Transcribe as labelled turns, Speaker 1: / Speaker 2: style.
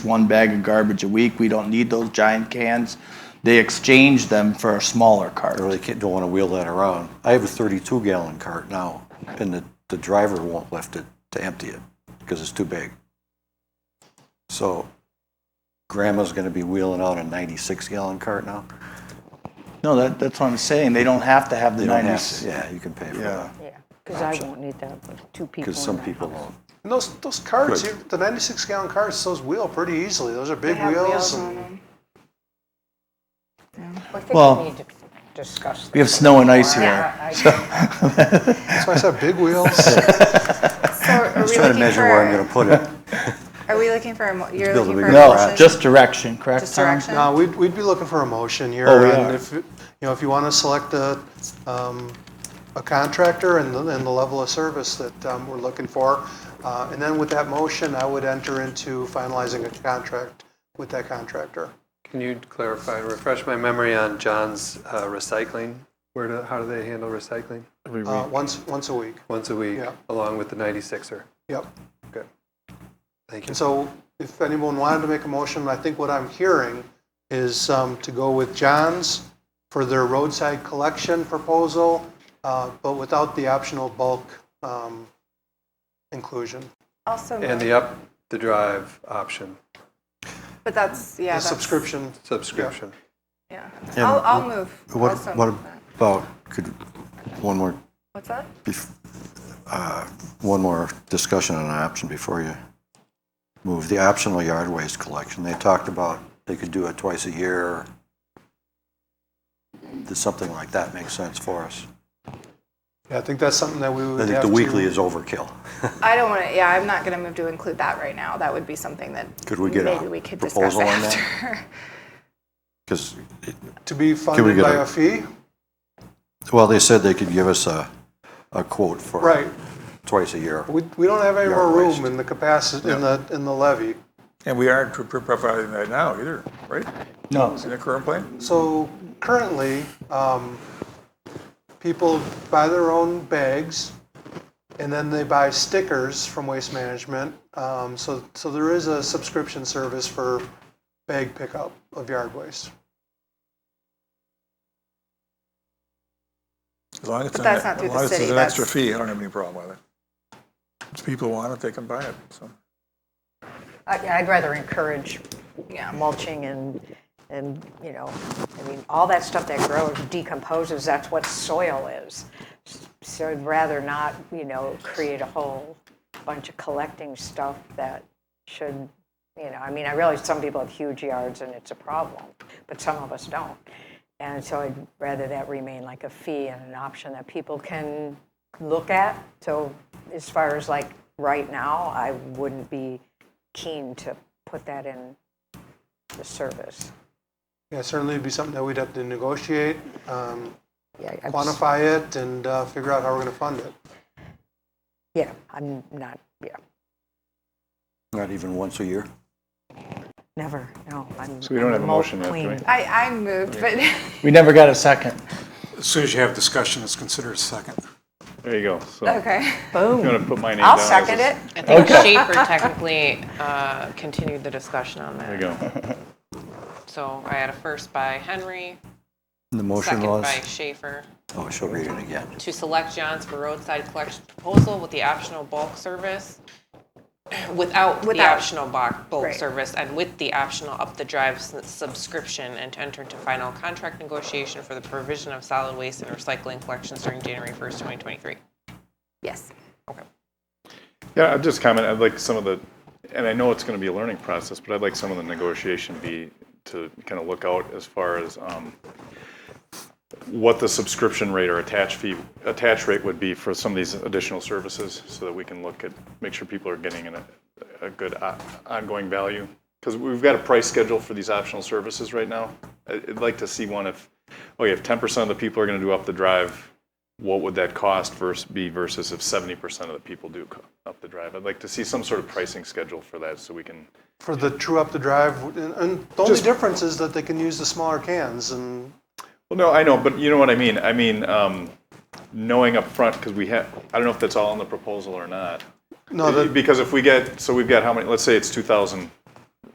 Speaker 1: one bag of garbage a week. We don't need those giant cans. They exchange them for a smaller cart.
Speaker 2: I really can't, don't want to wheel that around. I have a 32 gallon cart now, and the, the driver won't lift it to empty it because it's too big. So grandma's going to be wheeling out a 96 gallon cart now.
Speaker 1: No, that, that's what I'm saying. They don't have to have the
Speaker 2: You don't have
Speaker 1: 90s.
Speaker 2: to- yeah, you can pay for
Speaker 1: Yeah.
Speaker 2: that
Speaker 3: Yeah, because I won't need that with two people.
Speaker 2: because
Speaker 3: in
Speaker 2: some
Speaker 3: the
Speaker 2: people
Speaker 3: house.
Speaker 2: won't.
Speaker 4: And those those carts,
Speaker 2: Good.
Speaker 4: you, the 96 gallon carts, those wheel pretty easily. Those are big
Speaker 5: have
Speaker 4: wheels.
Speaker 5: wheels
Speaker 4: and
Speaker 5: on them.
Speaker 3: I think
Speaker 1: Well,
Speaker 3: we need to discuss this.
Speaker 1: We have snow and ice here.
Speaker 3: Yeah, I-
Speaker 4: That's why I said big wheels.
Speaker 5: So are
Speaker 2: Trying
Speaker 5: we
Speaker 2: to
Speaker 5: looking
Speaker 2: measure where I'm
Speaker 5: for,
Speaker 2: going to put it.
Speaker 5: are we looking for, a mo- you're
Speaker 2: build a
Speaker 5: looking for a
Speaker 2: bigger
Speaker 1: No,
Speaker 5: motion?
Speaker 2: garage.
Speaker 1: just direction, correct?
Speaker 5: Just
Speaker 1: Tom?
Speaker 5: direction?
Speaker 4: no, we'd, we'd be looking for a motion here.
Speaker 1: Oh, we
Speaker 4: and
Speaker 1: are.
Speaker 4: if you know if you want to select a um, a contractor and the, and the level of service that um, we're looking for, uh, and then with that motion, I would enter into finalizing a contract with that contractor.
Speaker 6: Can you clarify, refresh my memory on John's uh, recycling? Where do, how do they handle recycling?
Speaker 4: Uh, once once a week.
Speaker 6: Once a week,
Speaker 4: Yeah.
Speaker 6: along with the 96er.
Speaker 4: Yep.
Speaker 6: Good. Thank you.
Speaker 4: And so if anyone wanted to make a motion, I think what I'm hearing is um, to go with John's for their roadside collection proposal, uh, but without the optional bulk um, inclusion.
Speaker 5: Also,
Speaker 6: And the up the drive option
Speaker 5: but that's,
Speaker 4: The
Speaker 5: yeah, that's-
Speaker 4: subscription,
Speaker 6: subscription.
Speaker 5: yeah.
Speaker 2: And
Speaker 5: I'll, I'll move.
Speaker 2: What,
Speaker 5: Also
Speaker 2: what
Speaker 5: move that.
Speaker 2: about, could, one more,
Speaker 5: What's that?
Speaker 2: bef- uh, one more discussion on an option before you move. The optional yard waste collection, they talked about they could do it twice a year. Does something like that make sense for us?
Speaker 4: yeah, I think that's something that we
Speaker 2: I
Speaker 4: would
Speaker 2: think
Speaker 4: have
Speaker 2: the
Speaker 4: to.
Speaker 2: weekly is overkill.
Speaker 5: I don't want to, yeah, I'm not going to move to include that right now. That would be something that
Speaker 2: Could we get a
Speaker 5: maybe we could discuss
Speaker 2: proposal on that?
Speaker 5: after.
Speaker 2: Because,
Speaker 4: To be funded
Speaker 2: get
Speaker 4: by
Speaker 2: a-
Speaker 4: a fee,
Speaker 2: well, they said they could give us a, a quote for.
Speaker 4: right.
Speaker 2: Twice a year.
Speaker 4: We, we don't have any
Speaker 2: Yard
Speaker 4: more
Speaker 2: waste.
Speaker 4: room in the capacity, in the, in the levy.
Speaker 7: And we aren't pro- pro- providing that now either, right?
Speaker 1: No.
Speaker 7: In the current plan?
Speaker 4: So currently, um, people buy their own bags, and then they buy stickers from Waste Management. Um, so, so there is a subscription service for bag pickup of yard waste.
Speaker 7: As long as it's,
Speaker 5: But
Speaker 7: an-
Speaker 5: that's not through
Speaker 7: as
Speaker 5: the
Speaker 7: long as it's
Speaker 5: city,
Speaker 7: an extra
Speaker 5: that's-
Speaker 7: fee, I don't have any problem with it. If people want it, they can buy it, so.
Speaker 3: I- I'd rather encourage
Speaker 5: Yeah.
Speaker 3: mulching and, and, you know, I mean, all that stuff that grows decomposes, that's what soil is. So I'd rather not, you know, create a whole bunch of collecting stuff that should, you know, I mean, I realize some people have huge yards and it's a problem, but some of us don't. And so I'd rather that remain like a fee and an option that people can look at. So as far as like right now, I wouldn't be keen to put that in the service.
Speaker 4: Yeah, certainly it'd be something that we'd have to negotiate, um,
Speaker 3: Yeah, I'm s-
Speaker 4: quantify it, and uh, figure out how we're going to fund it.
Speaker 3: Yeah, I'm not, yeah,
Speaker 2: Not even once a year?
Speaker 3: never, no, I'm.
Speaker 8: So we don't
Speaker 3: I'm
Speaker 8: have a motion
Speaker 3: remote
Speaker 8: yet, do we?
Speaker 3: queen.
Speaker 5: I, I moved, but
Speaker 1: We never got a second.
Speaker 9: As soon as you have discussion, it's considered a second.
Speaker 8: There you go. So
Speaker 5: okay.
Speaker 8: I'm going to put my name
Speaker 3: I'll
Speaker 8: down as
Speaker 3: second
Speaker 8: a-
Speaker 3: it.
Speaker 10: I think Schaefer technically uh, continued the discussion on
Speaker 8: There
Speaker 10: that.
Speaker 8: you go.
Speaker 10: So I had a first by Henry,
Speaker 2: The motion
Speaker 10: second
Speaker 2: was?
Speaker 10: by Schaefer,
Speaker 2: Oh, she'll read it again.
Speaker 10: to select Johns for roadside collection proposal with the optional bulk service, without the
Speaker 5: Without.
Speaker 10: optional bulk, bulk
Speaker 5: Right.
Speaker 10: service and with the optional up the drive s- subscription and to enter into final contract negotiation for the provision of solid waste and recycling collections during January 1st, 2023.
Speaker 5: Yes.
Speaker 10: Okay.
Speaker 8: Yeah, I'd just comment, I'd like some of the, and I know it's going to be a learning process, but I'd like some of the negotiation be to kind of look out as far as um, what the subscription rate or attach fee, attach rate would be for some of these additional services so that we can look at, make sure people are getting an- a good o- ongoing value. Because we've got a price schedule for these optional services right now. I- I'd like to see one if, okay, if 10% of the people are going to do up the drive, what would that cost versus, be versus if 70% of the people do co- up the drive? I'd like to see some sort of pricing schedule for that so we can,
Speaker 4: For the true up the drive, and, and the only difference is that they can use the smaller cans, and
Speaker 8: well, no, I know, but you know what I mean. I mean, um, knowing up front because we have, I don't know if that's all in the proposal or not.
Speaker 4: no, the,
Speaker 8: because if we get, so we've got how many, let's say it's 2,000